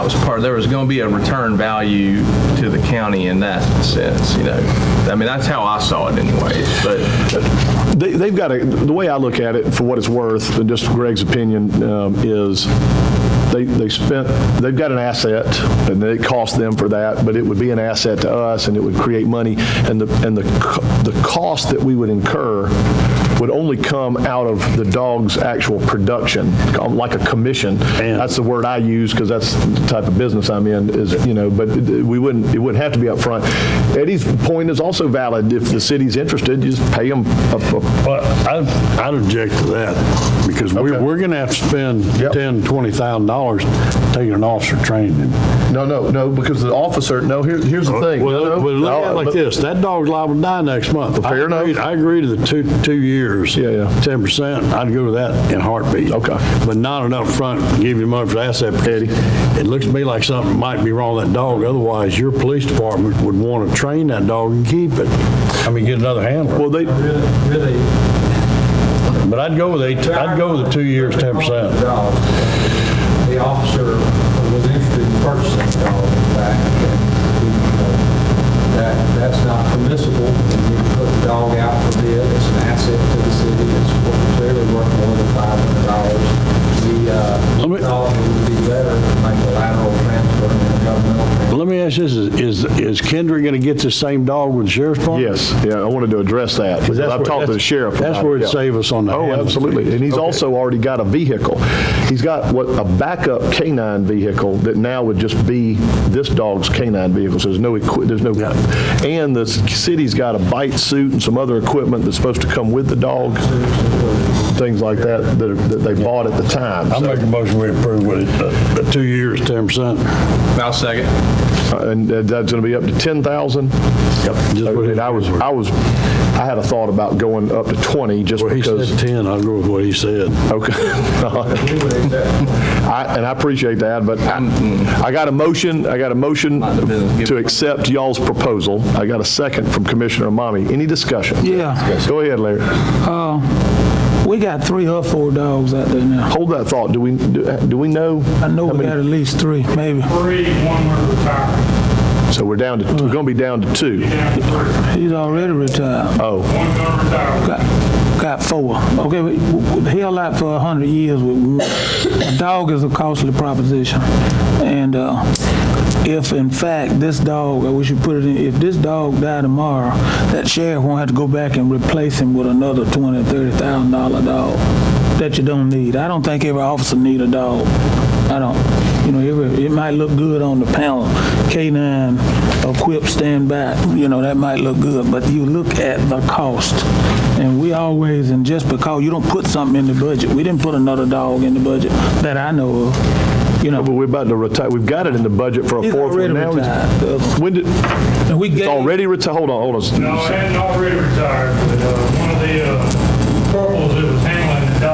That was part, there was going to be a return value to the county in that sense, you know. I mean, that's how I saw it anyway, but They- They've got a, the way I look at it, for what it's worth, and just Greg's opinion, um, is they, they spent, they've got an asset, and it cost them for that, but it would be an asset to us, and it would create money, and the, and the, co- the cost that we would incur would only come out of the dog's actual production, like a commission. That's the word I use, because that's the type of business I'm in, is, you know, but it- we wouldn't, it wouldn't have to be up front. Eddie's point is also valid. If the city's interested, you just pay them a a Well, I'd I'd object to that, because we're, Okay. we're going to have to spend Yep. $10,000, $20,000 taking an officer training. No, no, no, because the officer, no, here, here's the thing. Oh, No, no, Well, but look at it no, like but- this, that dog's liable to die next month. Fair I enough. agreed- I agree to the two, two years. Yeah, yeah. 10%, I'd go to that in a heartbeat. Okay. But not an upfront, give you money for the asset. Eddie. It looks to me like something might be wrong with that dog, otherwise your police department would want to train that dog and keep it. I mean, get another handler. Well, they, Really, really. But I'd go with eight, I'd go with the two years, 10%. Dog. The officer was interested in purchasing the dog back. and, you know, That, that's not permissible. And you put the dog out for bid, it's an asset to the city, it's clearly worth more than five hundred dollars. The, uh, Let me- dog would be better to make a lateral transfer than a governmental transfer. Let me ask this, is, is Kendra going to get the same dog with the sheriff's department? yes, yeah, I wanted to address that, because that's I've where- talked to the that's- sheriff. that's about where it, it'd yeah. save us on the Oh, handling absolutely, fees. and he's Okay. also already got a vehicle. He's got what, a backup canine vehicle that now would just be this dog's canine vehicle, so there's no, equi- there's no, and the s- city's got a bite suit and some other equipment that's supposed to come with the dog, things like that, that are- that they bought at the time. I so- make a motion we approve with it, uh, uh, two years, 10%. I'll second. Uh, And that- that's going to be up to 10,000? Yep. Just what it And I was, I was, I had a thought about going up to 20 just Well, he said because. 10, I'll go with what he said. Okay. I- And I appreciate that, but I I got a motion, I got a motion Not the business. to accept y'all's proposal. I got a second from Commissioner Amami. Any discussion? Yeah, Go ahead, Larry. uh, we got three or four dogs out there now. Hold that thought. Do we, do do we know? I know how we got many- at least three, maybe. three, one were retired. So we're down to, we're going to be down to two. Down to three. He's already retired. Oh, One gun retired. Got, got four. Okay, we- we- held out for a hundred years. We- we- A dog is a costly proposition. And, uh, if in fact this dog, or we should put it in, if this dog died tomorrow, that sheriff won't have to go back and replace him with another twenty, thirty thousand dollar dog that you don't need. I don't think every officer need a dog. I don't. You know, every, it might look good on the panel, K-9 equipped stand back, you know, that might look good, but you look at the cost. And we always, and just because you don't put something in the budget, we didn't put another dog in the budget that I know of, you know. but we're about to retire, we've got it in the budget for a He's fourth already one now. retired. When did, And we it's gave, already retired, hold on, hold on. No, I hadn't already retired, but uh, one of the uh,